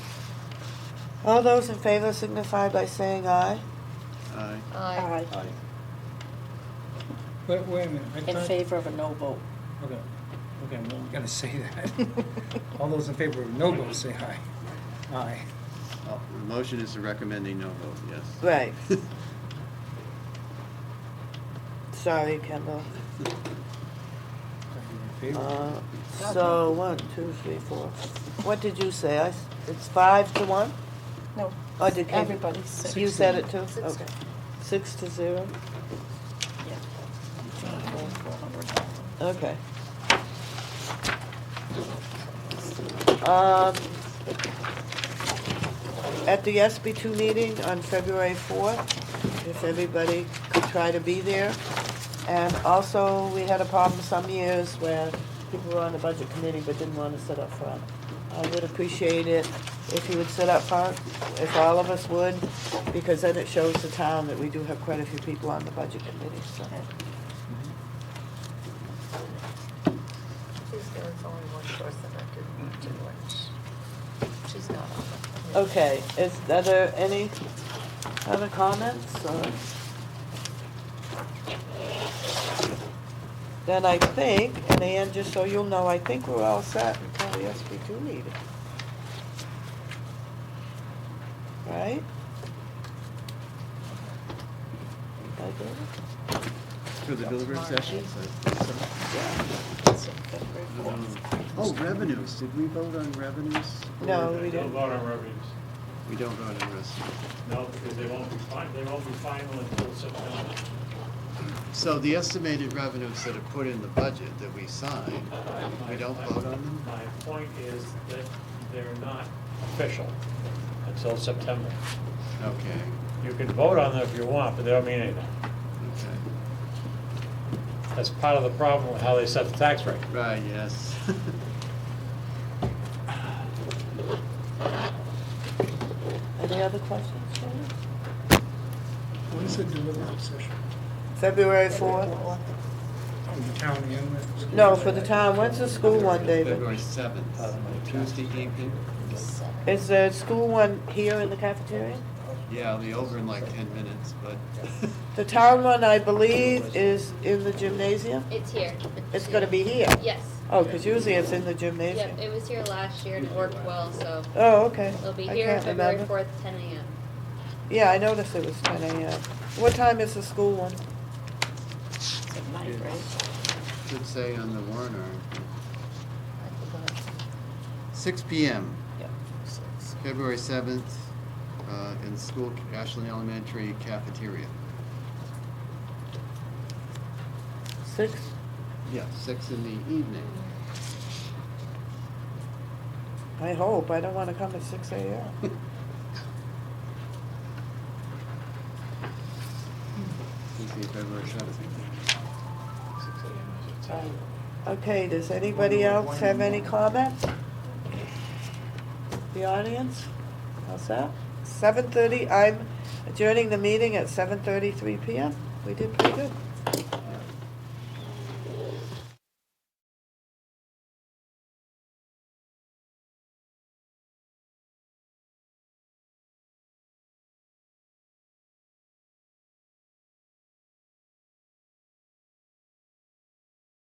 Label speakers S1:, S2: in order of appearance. S1: All those in favor signify by saying aye.
S2: Aye.
S3: Aye.
S4: Aye.
S2: Aye.
S5: Wait, wait a minute. I
S4: In
S5: thought-
S4: favor of a no vote.
S5: Okay, okay, well, we gotta say that. All those in favor of no vote, say aye. Aye.
S2: Oh, The motion is to recommend a no vote, yes.
S1: Right. Sorry, Kendall.
S5: All in favor?
S1: Uh, So, one, two, three, four. What did you say? I s- It's five to one?
S4: No,
S1: Or did you?
S4: everybody's six.
S1: You said it too?
S3: Six
S1: Okay. Six to zero?
S4: Yeah. Four hundred.
S1: Okay. Um, At the SB two meeting on February fourth, if everybody could try to be there. And also, we had a problem some years where people were on the budget committee but didn't want to sit up front. I would appreciate it if you would sit up front, if all of us would, because then it shows the town that we do have quite a few people on the budget committee, so.
S3: She's there, it's only one person that didn't want to do it. She's not on it.
S1: Okay, is, are there any other comments, or? Then I think, and Ann, just so you'll know, I think we're all set until the SB two meeting. Right? I think,
S2: For the deliberative session?
S1: yeah.
S4: It's in February fourth.
S2: Oh, revenues, did we vote on revenues?
S1: No, Oh, we
S6: They don't
S1: didn't.
S6: vote on revenues,
S2: We don't vote on revenues.
S6: no, because they won't be final, they won't be final until September.
S2: So the estimated revenues that are put in the budget that we signed, we don't vote on them?
S6: My point is that they're not official until September.
S2: Okay,
S6: You can vote on them if you want, but they don't mean anything.
S2: okay,
S6: That's part of the problem with how they set the tax rate.
S2: right, yes.
S1: Any other questions, Shannon?
S5: What is the deliberative session?
S1: February fourth?
S5: From the town and?
S1: No, for the town, when's the school one, David?
S2: February seventh, Tuesday evening,
S1: Is the school one here in the cafeteria?
S2: yeah, I'll be over in like ten minutes, but.
S1: The town one, I believe, is in the gymnasium?
S7: It's here.
S1: It's gonna be here?
S7: Yes.
S1: Oh, because usually it's in the
S7: Yep,
S1: gymnasium.
S7: it was here last year and it worked well, so
S1: Oh, okay.
S7: it'll be
S1: I
S7: here
S1: can't
S7: February
S1: remember.
S7: fourth, ten AM.
S1: Yeah, I noticed it was ten AM. What time is the school one?
S4: It's at night, right?
S2: Should say on the warrant article,
S4: I forgot.
S2: six P M.
S4: Yeah. Six.
S2: February 7th, uh, in school, Ashland Elementary cafeteria.
S1: Six?
S2: Yeah. Six in the evening.
S1: I hope. I don't want to come at six AM.
S2: Tuesday, February 7th.
S1: Okay, does anybody else have any comments? The audience? How's that? Seven thirty, I'm adjourning the meeting at seven thirty-three PM. We did pretty good.